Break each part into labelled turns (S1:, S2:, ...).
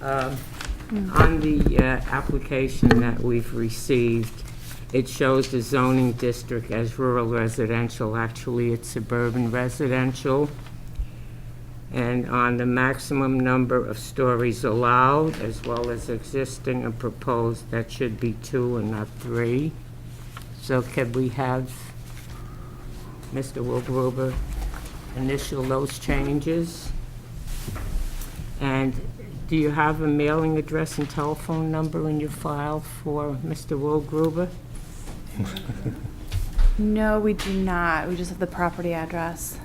S1: Um, On the uh, application that we've received, it shows the zoning district as rural residential. Actually, it's suburban residential. And on the maximum number of stories allowed, as well as existing and proposed, that should be two and not three. So could we have Mr. Wilgruber initial those changes? And do you have a mailing address and telephone number in your file for Mr. Will Gruber?
S2: No, we do not. We just have the property address.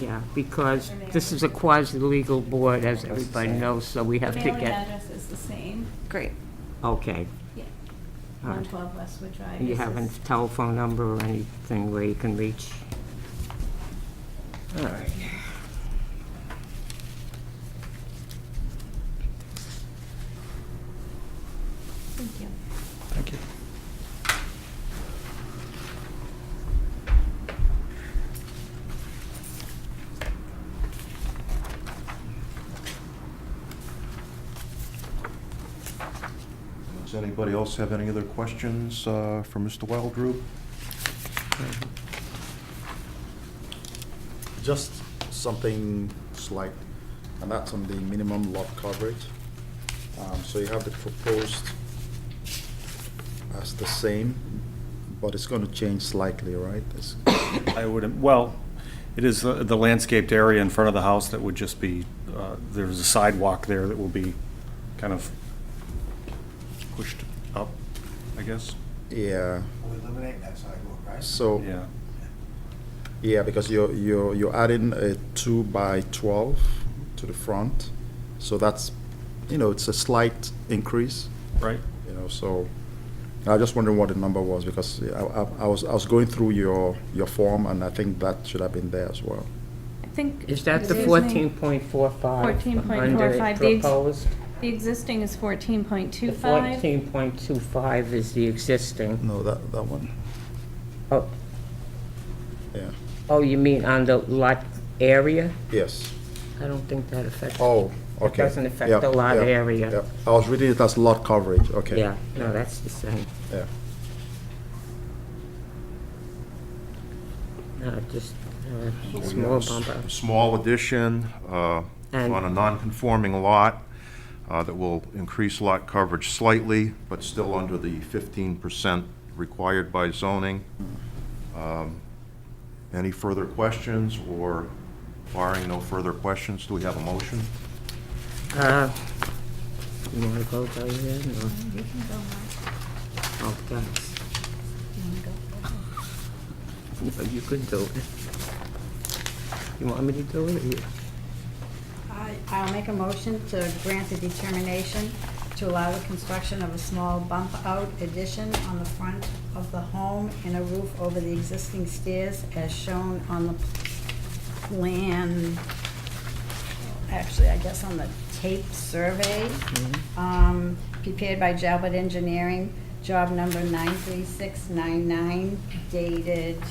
S1: Yeah, because this is a quasi-legal board, as everybody knows, so we have
S3: The
S1: to
S3: mailing
S1: get...
S3: address is the same,
S2: Great.
S1: Okay.
S3: yeah.
S1: All right.
S3: 112 Westwood Drive.
S1: And you
S3: is
S1: have a
S3: this-
S1: telephone number or anything where you can reach? All right.
S3: Thank you.
S4: Thank you.
S5: Does anybody else have any other questions uh, for Mr. Wildroot?
S4: Just something slight, and that's on the minimum lot coverage. Um, So you have the proposed as the same, but it's going to change slightly, right? It's-
S6: I would, well, it is the the landscaped area in front of the house that would just be, uh, there's a sidewalk there that will be kind of pushed up, I guess,
S4: Yeah,
S7: We'll eliminate that sidewalk, right?
S4: so,
S6: yeah.
S4: yeah, because you're, you're, you're adding a two by 12 to the front. So that's, you know, it's a slight increase.
S6: Right?
S4: you know, so I was just wondering what the number was because I, I, I was I was going through your your form and I think that should have been there as well.
S3: I think.
S1: Is that the
S3: Excuse me.
S1: 14.45 under
S3: 14.45, the ex-
S1: proposed?
S3: The existing is 14.25.
S1: The 14.25 is the existing.
S4: No, that that one.
S1: Oh,
S4: Yeah.
S1: Oh, you mean on the lot area?
S4: Yes.
S1: I don't think that affects.
S4: Oh, okay.
S1: doesn't affect
S4: Yeah,
S1: the lot
S4: yeah,
S1: area.
S4: yeah. I was reading it as lot coverage. Okay.
S1: Yeah, no, that's the same.
S4: Yeah.
S1: No, just uh, a
S5: We
S1: small
S5: have a s-
S1: bump up.
S5: Small addition uh,
S1: And-
S5: on a non-conforming lot uh, that will increase lot coverage slightly, but still under the 15% required by zoning. Um, Any further questions, or barring no further questions, do we have a motion?
S1: Uh, You want to go by then, or? Oh, thanks. No, you can do it. You want me to do it? or you-
S8: I- I'll make a motion to grant a determination to allow the construction of a small bump-out addition on the front of the home and a roof over the existing stairs as shown on the plan, actually, I guess on the tape survey, um, prepared by Jalbert Engineering, job number 93699, dated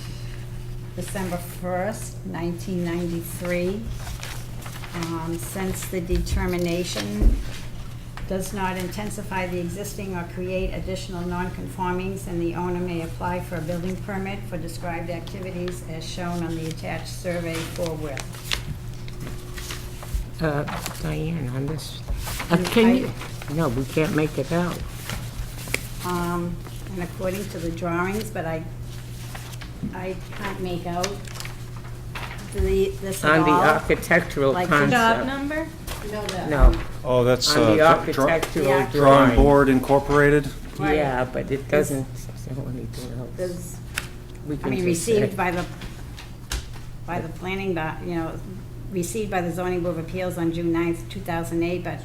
S8: December 1st, 1993 um, since the determination does not intensify the existing or create additional nonconformings, and the owner may apply for a building permit for described activities as shown on the attached survey forthwith.
S1: Uh, Diane, on this, uh, can you, no, we can't make it out.
S8: Um, And according to the drawings, but I, I can't make out the, this at
S1: On the
S8: all.
S1: architectural
S8: Like-
S3: Job
S1: concept.
S3: number?
S8: No, the-
S1: No,
S6: Oh, that's
S1: on the
S6: uh, dra-
S1: architectural
S8: Yeah.
S6: Drawing
S1: drawing.
S6: Board Incorporated?
S8: Right.
S1: Yeah, but it doesn't show anything else.
S8: There's-
S1: We
S8: I
S1: can
S8: mean,
S1: just say-
S8: received by the, by the planning, bo- you know, received by the zoning board of appeals on June 9th, 2008, but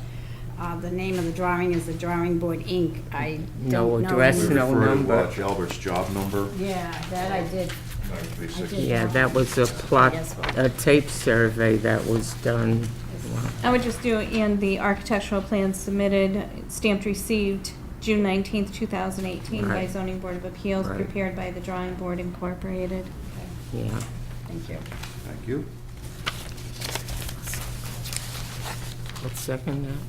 S8: uh, the name of the drawing is the Drawing Board, Inc. I don't
S1: No
S8: know.
S1: address,
S5: We
S8: any-
S1: no
S5: refer to
S1: number.
S5: Lodge Albert's job number,
S8: Yeah, that I did.
S5: 936.
S1: Yeah, that was a plot,
S8: Yes, well-
S1: a tape survey that was done.
S3: I would just do, and the architectural plan submitted, stamped received June 19th, 2018 by
S1: Right.
S3: zoning board of appeals,
S1: Right.
S3: prepared by the drawing board incorporated.
S1: Yeah.
S8: Thank you.
S5: Thank you.
S1: Let's second that.